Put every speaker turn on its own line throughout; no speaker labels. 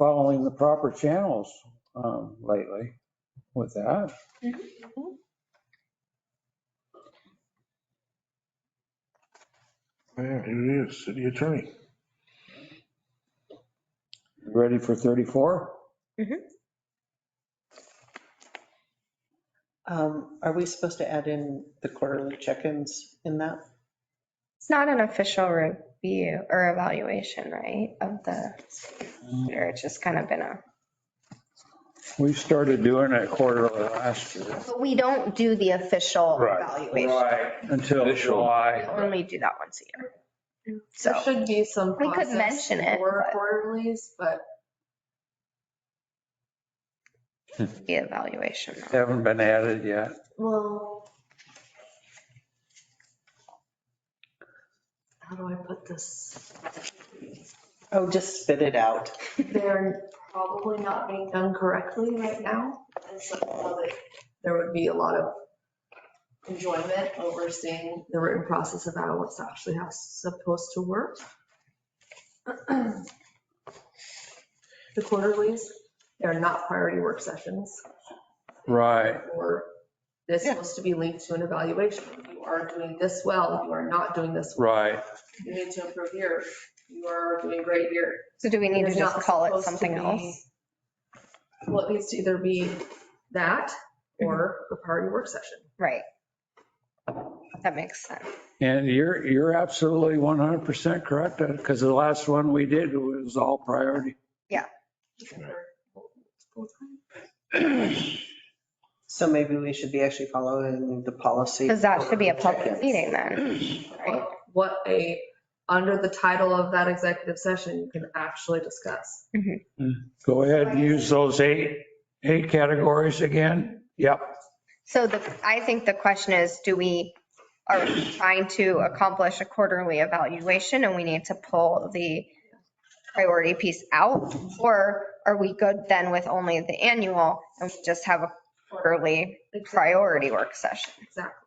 following the proper channels um, lately with that.
Yeah, here it is, city attorney.
Ready for 34?
Um, Are we supposed to add in the quarterly check-ins in that?
It's not an official review or evaluation, right, of the, or it's just kind of been a.
We started doing it quarterly last year.
But we don't do the official
Right.
evaluation.
Until
Initial.
We
July.
only do that once a year.
There
So,
should be some
We could
process
mention it,
for
but-
quarterlies, but
the evaluation.
Haven't been added yet.
well. How do I put this?
Oh, just spit it out.
They're probably not being done correctly right now. And so probably there would be a lot of enjoyment overseeing the written process of how it's actually how it's supposed to work. The quarterlies, they're not priority work sessions.
Right.
or it's
Yeah.
supposed to be linked to an evaluation. You are doing this well, you are not doing this, well.
Right.
you need to improve here, you are doing great here.
So do we need to
There's
just
not
call it
supposed to
something
be-
else?
Well, it needs to either be that
Mm-hmm.
or a priority work session.
Right. That makes sense.
And you're, you're absolutely 100% correct because the last one we did was all priority.
So maybe we should be actually following the policy.
Because that should be a public
Check-ins.
meeting then, right?
What- What a, under the title of that executive session, you can actually discuss.
Go ahead and use those eight, eight categories again. Yep.
So the, I think the question is, do we, are we trying to accomplish a quarterly evaluation and we need to pull the priority piece out? Or are we good then with only the annual and we just have a quarterly priority work session?
Exactly.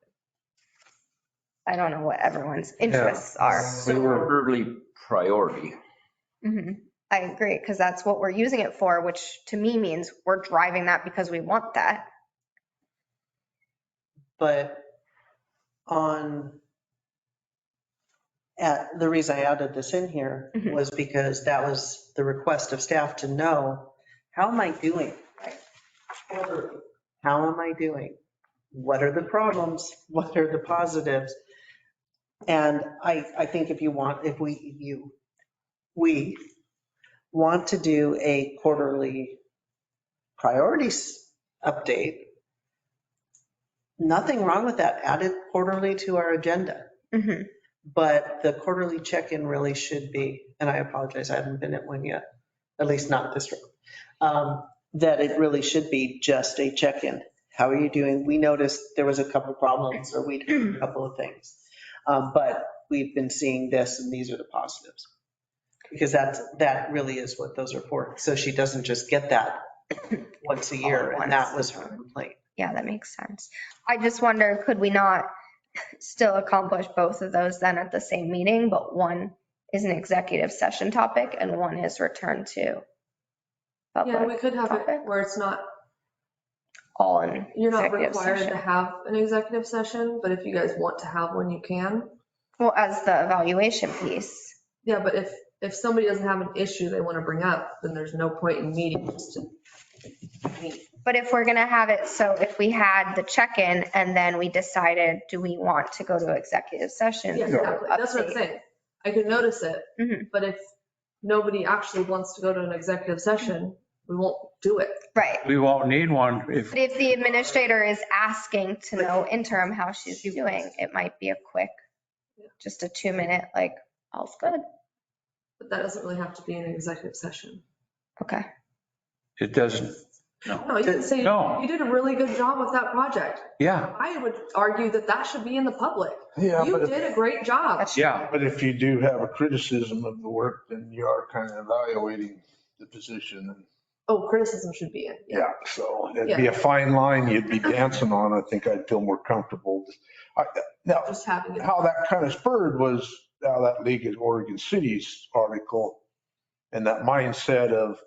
I don't know what everyone's interests are.
They were early priority.
Mhm. I agree, because that's what we're using it for, which to me means we're driving that because we want that.
But on, at, the reason I added this in here
Mhm.
was because that was the request of staff to know, how am I doing? How am I doing? What are the problems? What are the positives? And I, I think if you want, if we, you, we want to do a quarterly priorities update, nothing wrong with that, add it quarterly to our agenda.
Mhm.
But the quarterly check-in really should be, and I apologize, I haven't been at one yet, at least not this room, um, that it really should be just a check-in. How are you doing? We noticed there was a couple problems or we did a couple of things. Um, But we've been seeing this and these are the positives. Because that's, that really is what those are for. So she doesn't just get that once a year and that was her complaint.
Yeah, that makes sense. I just wonder, could we not still accomplish both of those then at the same meeting, but one is an executive session topic and one is return to
Yeah,
public,
we could have it
Topic.
where it's not,
all in
you're not
executive
required to
session.
have an executive session, but if you guys want to have one, you can.
Well, as the evaluation piece,
Yeah, but if, if somebody doesn't have an issue they want to bring up, then there's no point in meeting. just to meet.
but if we're going to have it, so if we had the check-in and then we decided, do we want to go to executive session?
Yeah, exactly. That's what I'm
Update.
saying. I can notice it,
Mhm.
but if nobody actually wants to go to an executive session, we won't do it.
Right.
We won't need one if
But if the administrator is asking to know interim how she's doing, it might be a quick, just a two minute, like, all's good.
But that doesn't really have to be an executive session.
Okay.
it doesn't.
No, you can say,
No.
you did a really good job with that project.
Yeah,
I would argue that that should be in the public.
Yeah,
You
but
did a
if,
great job.
yeah.
but if you do have a criticism of the work, then you are kind of evaluating the position. and
Oh, criticism should be in.
Yeah, so it'd be a fine line you'd be dancing on. I think I'd feel more comfortable. I- Now,
Just having it.
how that kind of spurred was now that League of Oregon Cities article and that mindset of